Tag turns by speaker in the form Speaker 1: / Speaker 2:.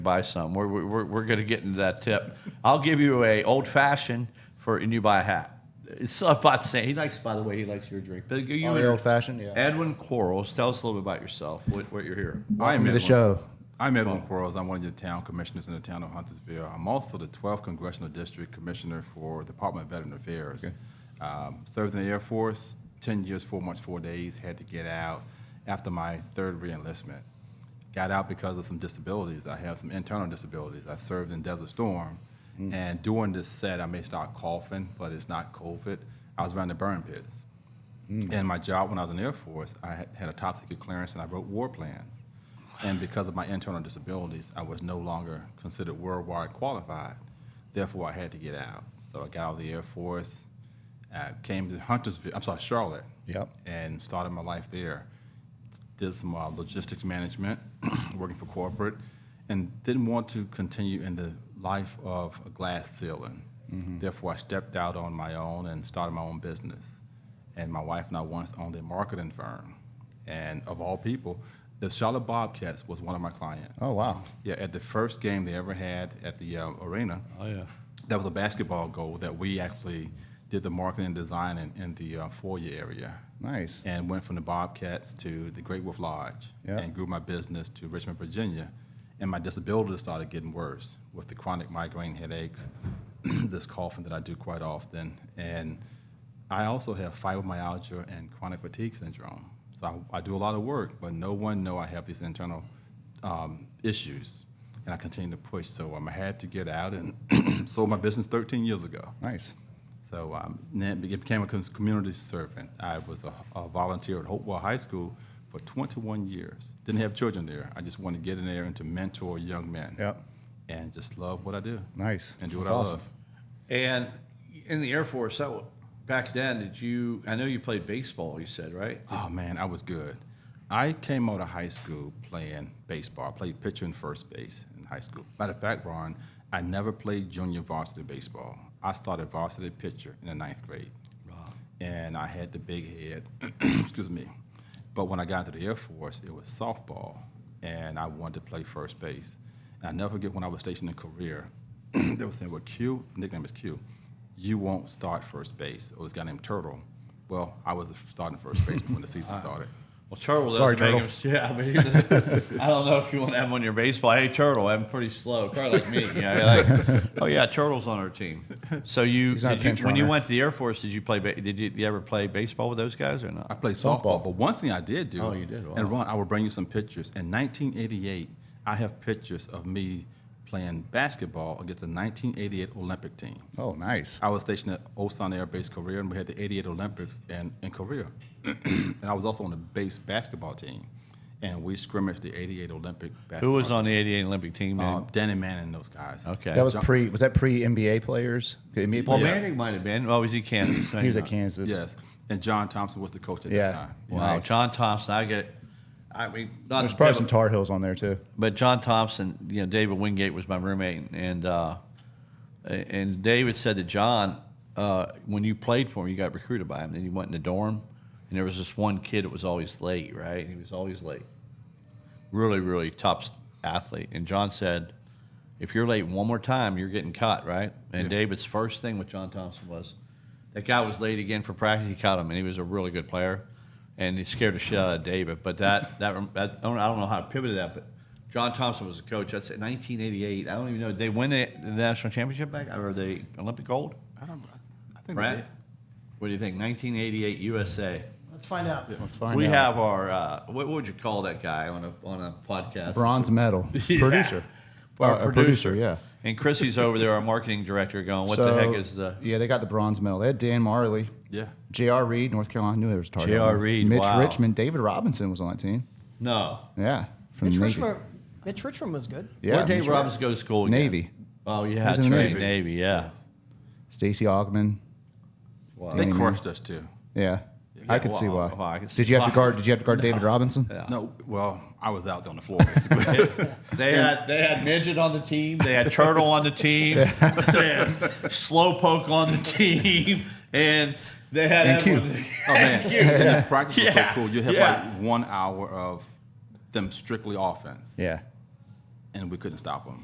Speaker 1: buy some. We're, we're, we're going to get into that tip. I'll give you a old fashioned for, and you buy a hat. It's about saying, he likes, by the way, he likes your drink. But you
Speaker 2: Oh, the old fashioned, yeah.
Speaker 1: Edwin Quarles, tell us a little bit about yourself, what, what you're here.
Speaker 2: Welcome to the
Speaker 3: Edwin-
Speaker 2: show.
Speaker 3: I'm Edwin Quarles. I'm one of your town commissioners in the town of Huntersville. I'm also the 12th Congressional District Commissioner for Department of Veteran Affairs. Um, served in the Air Force 10 years, 4 months, 4 days. Had to get out after my third reenlistment. Got out because of some disabilities. I have some internal disabilities. I served in Desert Storm.
Speaker 2: Mm.
Speaker 3: And during this set, I may start coughing, but it's not COVID. I was around the burn pits. And my job when I was in the Air Force, I had, had a top secret clearance and I wrote war plans. And because of my internal disabilities, I was no longer considered worldwide qualified. Therefore, I had to get out. So I got out of the Air Force, uh, came to Huntersville, I'm sorry, Charlotte.
Speaker 2: Yep.
Speaker 3: And started my life there. Did some uh, logistics management, working for corporate, and didn't want to continue in the life of a glass ceiling. Therefore, I stepped out on my own and started my own business. And my wife and I once owned a marketing firm. And of all people, the Charlotte Bobcats was one of my clients.
Speaker 2: Oh, wow.
Speaker 3: Yeah, at the first game they ever had at the uh, arena,
Speaker 1: Oh, yeah.
Speaker 3: that was a basketball goal that we actually did the marketing and design in, in the uh, foyer area.
Speaker 2: Nice.
Speaker 3: And went from the Bobcats to the Great Wolf Lodge
Speaker 2: Yeah.
Speaker 3: and grew my business to Richmond, Virginia. And my disabilities started getting worse with the chronic migraine headaches, this coughing that I do quite often. And I also have fibromyalgia and chronic fatigue syndrome. So I, I do a lot of work, but no one know I have these internal um, issues. And I continue to push. So um, I had to get out and sold my business 13 years ago.
Speaker 2: Nice.
Speaker 3: So um, then it became a com- community servant. I was a, a volunteer at Hopewell High School for 21 years. Didn't have children there. I just wanted to get in there and to mentor young men.
Speaker 2: Yep.
Speaker 3: And just love what I do.
Speaker 2: Nice.
Speaker 3: And do what
Speaker 2: That's
Speaker 3: I
Speaker 2: awesome.
Speaker 3: love.
Speaker 1: And in the Air Force, that, wa- back then, did you, I know you played baseball, you said, right?
Speaker 3: Oh man, I was good. I came out of high school playing baseball. I played pitcher and first base in high school. Matter of fact, Ron, I never played junior varsity baseball. I started varsity pitcher in the ninth grade. And I had the big head, excuse me. But when I got to the Air Force, it was softball, and I wanted to play first base. And I never forget when I was stationed in Korea, they were saying, well, Q, nickname is Q, you won't start first base. Or this guy named Turtle. Well, I was starting first baseman when the season
Speaker 1: Ah.
Speaker 3: started.
Speaker 1: Well, Turtle
Speaker 2: Sorry,
Speaker 1: doesn't make him. Yeah, I mean, he- I don't know if you want to have him on your baseball. Hey, Turtle, I'm pretty slow. Probably like me. You know, you're like, oh yeah, Turtle's on our team. So you,
Speaker 2: not a
Speaker 1: did you
Speaker 2: pinch
Speaker 1: when you
Speaker 2: runner.
Speaker 1: went to the Air Force, did you play? ba- Did you, did you ever play baseball with those guys or
Speaker 3: I
Speaker 1: not?
Speaker 3: played softball,
Speaker 2: Softball.
Speaker 3: but one thing I did do.
Speaker 1: Oh, you did? Wow.
Speaker 3: And Ron, I will bring you some pictures. In 1988, I have pictures of me playing basketball against the 1988 Olympic team.
Speaker 2: Oh, nice.
Speaker 3: I was stationed at Osan Air Base Korea, and we had the 88 Olympics in, in Korea. and I was also on the base basketball team, and we scrimmaged the 88 Olympic basketball
Speaker 1: Who was on
Speaker 3: team.
Speaker 1: the '88 Olympic team? Man?
Speaker 3: Uh, Danny Manning and those guys.
Speaker 1: okay,
Speaker 2: That was
Speaker 3: Jump-
Speaker 2: pre. Was that pre NBA players? Okay, NBA
Speaker 1: well,
Speaker 2: players?
Speaker 1: Manning might have been. Oh, was he Kansas?
Speaker 2: He was at Kansas.
Speaker 3: Yes. And John Thompson was the coach at
Speaker 2: Yeah.
Speaker 3: that time.
Speaker 1: Wow,
Speaker 2: Nice.
Speaker 1: John Thompson. I get. I mean, not
Speaker 2: There's
Speaker 1: to
Speaker 2: probably
Speaker 1: pivot-
Speaker 2: some Tar Heels on there too.
Speaker 1: but John Thompson, you know, David Wingate was my roommate, and uh, and David said that John, uh, when you played for him, you got recruited by him, and you went in the dorm, and there was this one kid that was always late, right? He was always late, really, really top s- athlete, and John said, if you're late one more time, you're getting caught, right? And David's first thing with John Thompson was, that guy was late again for practice. He caught him, and he was a really good player, and he scared the shit out of David. But that that, that I, don't, I don't know how to pivot to that, but John Thompson was a coach. That's in 1988. I don't even know. Did they win the, the national championship back or the Olympic gold?
Speaker 3: I don't. I think
Speaker 1: Brad, what do you think? 1988 USA.
Speaker 4: Let's find out.
Speaker 2: Let's find
Speaker 1: we
Speaker 2: out.
Speaker 1: have our uh, what, what would you call that guy on a on a podcast?
Speaker 2: bronze medal
Speaker 1: Yeah.
Speaker 2: producer.
Speaker 1: Our
Speaker 2: Uh, a
Speaker 1: producer.
Speaker 2: producer, yeah.
Speaker 1: And Chrissy's over there, our marketing director, going, "What the heck is uh, the
Speaker 2: Yeah, they got the bronze medal. They had Dan Marley.
Speaker 3: Yeah.
Speaker 2: J.R. Reed, North Carolina. I knew there was a Tar
Speaker 1: J.R.
Speaker 2: Heel on there.
Speaker 1: Reed,
Speaker 2: Mitch
Speaker 1: wow.
Speaker 2: Richmond, David Robinson was on that team.
Speaker 1: no?"
Speaker 2: Yeah, from
Speaker 4: Mitch
Speaker 2: Navy.
Speaker 4: Richmond, Mitch Richmond was good.
Speaker 2: Yeah,
Speaker 1: Where Dave
Speaker 2: Mitch-
Speaker 1: Robbins go to school? again?
Speaker 2: Navy.
Speaker 1: Oh yeah,
Speaker 2: was
Speaker 1: that's
Speaker 2: in the
Speaker 1: right. Navy.
Speaker 2: Navy.
Speaker 1: yeah.
Speaker 2: Stacy Ogman.
Speaker 1: Wow.
Speaker 3: They crushed us too.
Speaker 2: Yeah, I could see
Speaker 1: well,
Speaker 2: why.
Speaker 1: well, I could see
Speaker 2: did you have to
Speaker 1: why.
Speaker 2: guard? Did you have to guard David Robinson?
Speaker 1: Yeah.
Speaker 3: No, well, I was out there on the floor basically.
Speaker 1: They had they had midget on the team. They had turtle on the team. they had slowpoke on the team, and they had
Speaker 2: And Cube.
Speaker 1: everyone-
Speaker 3: oh man, And the practice was
Speaker 1: Yeah.
Speaker 3: so cool. You have
Speaker 1: Yeah.
Speaker 3: like one hour of them strictly offense.
Speaker 2: Yeah.
Speaker 3: and we couldn't stop them.